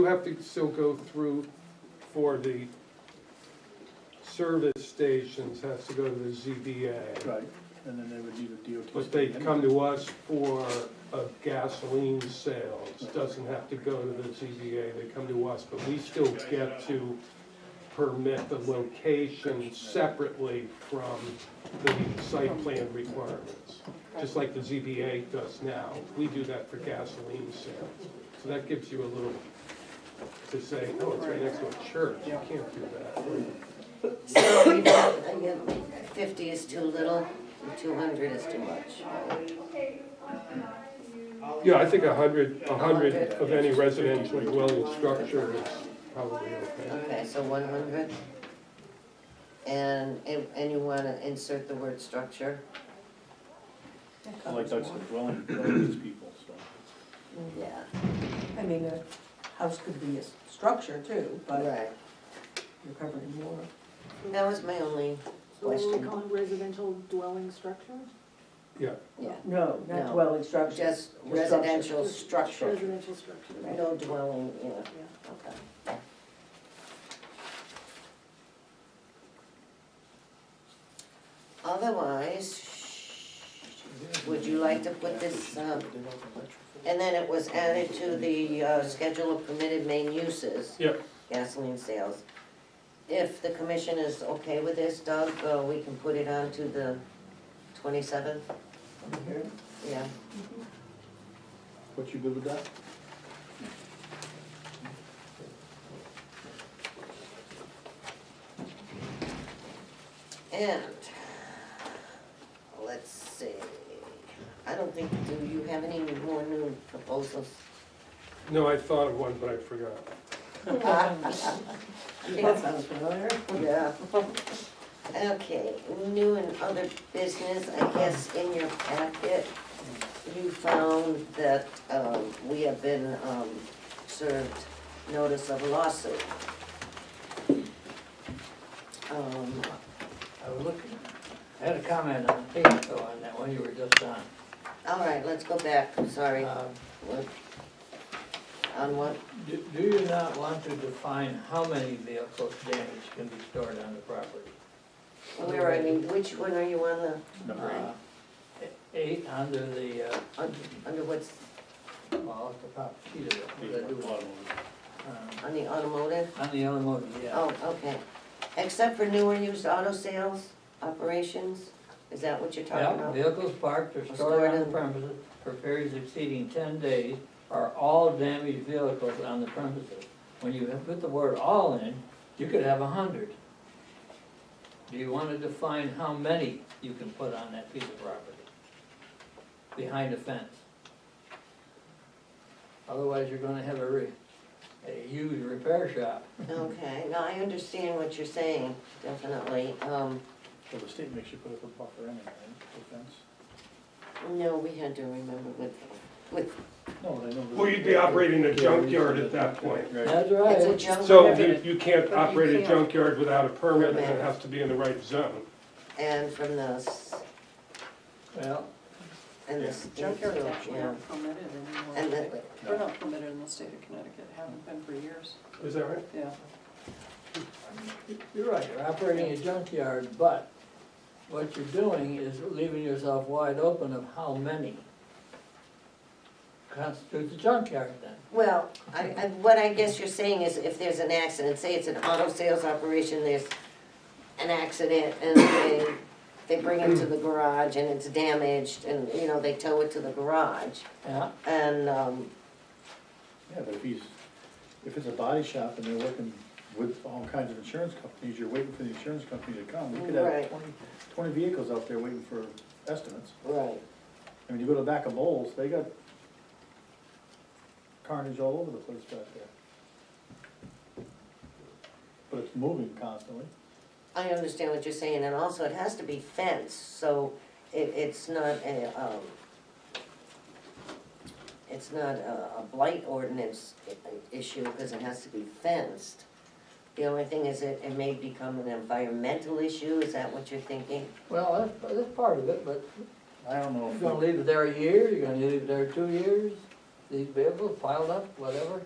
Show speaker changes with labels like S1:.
S1: You have to still go through for the service stations, has to go to the ZBA.
S2: Right, and then they would need a DOT.
S1: But they come to us for uh, gasoline sales, doesn't have to go to the ZBA, they come to us, but we still get to permit the location separately from the site plan requirements, just like the ZBA does now, we do that for gasoline sales. So that gives you a little, to say, oh, it's right next to a church, you can't do that.
S3: So we don't, I get fifty is too little, and two hundred is too much.
S1: Yeah, I think a hundred, a hundred of any residential dwelling structure is probably okay.
S3: Okay, so one hundred? And, and and you wanna insert the word structure?
S2: Like that's the dwelling, dwelling is people, so.
S3: Yeah.
S4: I mean, a house could be a s- structure too, but
S3: Right,
S4: you're covering more.
S3: that was my only
S5: So what do we
S3: question.
S5: call it, residential dwelling structure?
S1: Yeah,
S3: Yeah,
S4: No,
S3: not No.
S4: dwelling structure.
S3: just residential structure,
S5: Residential structure.
S3: no dwelling, yeah,
S5: Yeah.
S3: okay. Otherwise, would you like to put this, um, And then it was added to the uh, schedule of permitted main uses.
S1: Yep.
S3: Gasoline sales. If the commission is okay with this, Doug, uh, we can put it on to the twenty-seventh? Yeah,
S2: What, you good with that?
S3: and, let's see, I don't think, do you have any more new proposals?
S1: no, I thought of one, but I forgot.
S4: That sounds familiar.
S3: Yeah. Okay, new and other business, I guess in your packet, you found that, um, we have been, um, served notice of lawsuit. Um,
S6: I was looking, I had a comment on Facebook on that one you were just on.
S3: all right, let's go back, sorry,
S6: Uh,
S3: What- on what,
S6: Do do you not want to define how many vehicles damaged can be stored on the property?
S3: where, I mean, which one are you on the,
S2: Number
S6: Uh, e- Eight under the, uh,
S3: under, under what's,
S6: well, at the top sheet of it,
S2: eight,
S6: what I do.
S2: bottom
S6: Um,
S3: on the automotive?
S6: On the automotive, yeah.
S3: Oh, okay. Except for newer used auto sales operations, is that what you're talking
S6: Yeah,
S3: about?
S6: vehicles parked or stored on the premises for periods exceeding ten days are all damaged vehicles on the premises. When you have put the word all in, you could have a hundred. Do you wanna define how many you can put on that piece of property? Behind a fence? Otherwise, you're gonna have a re, a huge repair shop.
S3: Okay, now I understand what you're saying, definitely. Um,
S2: Well, the state makes you put up a buffer anyway, right, for fence?
S3: no, we had to remember with, with,
S2: No, they don't.
S1: Well, you'd be operating a junkyard at that point.
S2: Right,
S6: That's
S3: it's a
S6: right.
S3: junk.
S1: So
S3: permit,
S1: you, you can't
S5: But you
S1: operate a
S5: can't.
S1: junkyard without a permit, and it has to be in the right zone.
S3: And from the, s-
S6: Well,
S3: and
S2: Yeah.
S3: the state.
S7: Junkyards
S3: too,
S7: actually
S3: yeah.
S7: aren't permitted anymore.
S3: And the,
S7: They're not permitted in the state of Connecticut, haven't been for years,
S1: Is that right?
S7: yeah.
S6: You're right, you're operating a junkyard, but what you're doing is leaving yourself wide open of how many constitutes a junkyard then.
S3: well, I, I, what I guess you're saying is if there's an accident, say it's an auto sales operation, there's an accident and they, they bring it to the garage and it's damaged and, you know, they tow it to the garage.
S6: Yeah,
S3: And, um,
S2: yeah, but if he's, if it's a body shop and they're working with all kinds of insurance companies, you're waiting for the insurance company to come, you could have
S3: Right.
S2: 20 20 vehicles out there waiting for estimates.
S3: right,
S2: I mean, you go to back of Bowles, they got carnage all over the place back there. But it's moving constantly.
S3: I understand what you're saying, and also it has to be fenced, so it, it's not a, um, it's not a, a blight ordinance i- i- issue, because it has to be fenced. The only thing is it, it may become an environmental issue, is that what you're thinking?
S6: well, that's, that's part of it, but
S2: I don't know
S6: you're
S2: if,
S6: gonna leave it there a year, you're gonna leave it there two years, these vehicles piled up, whatever.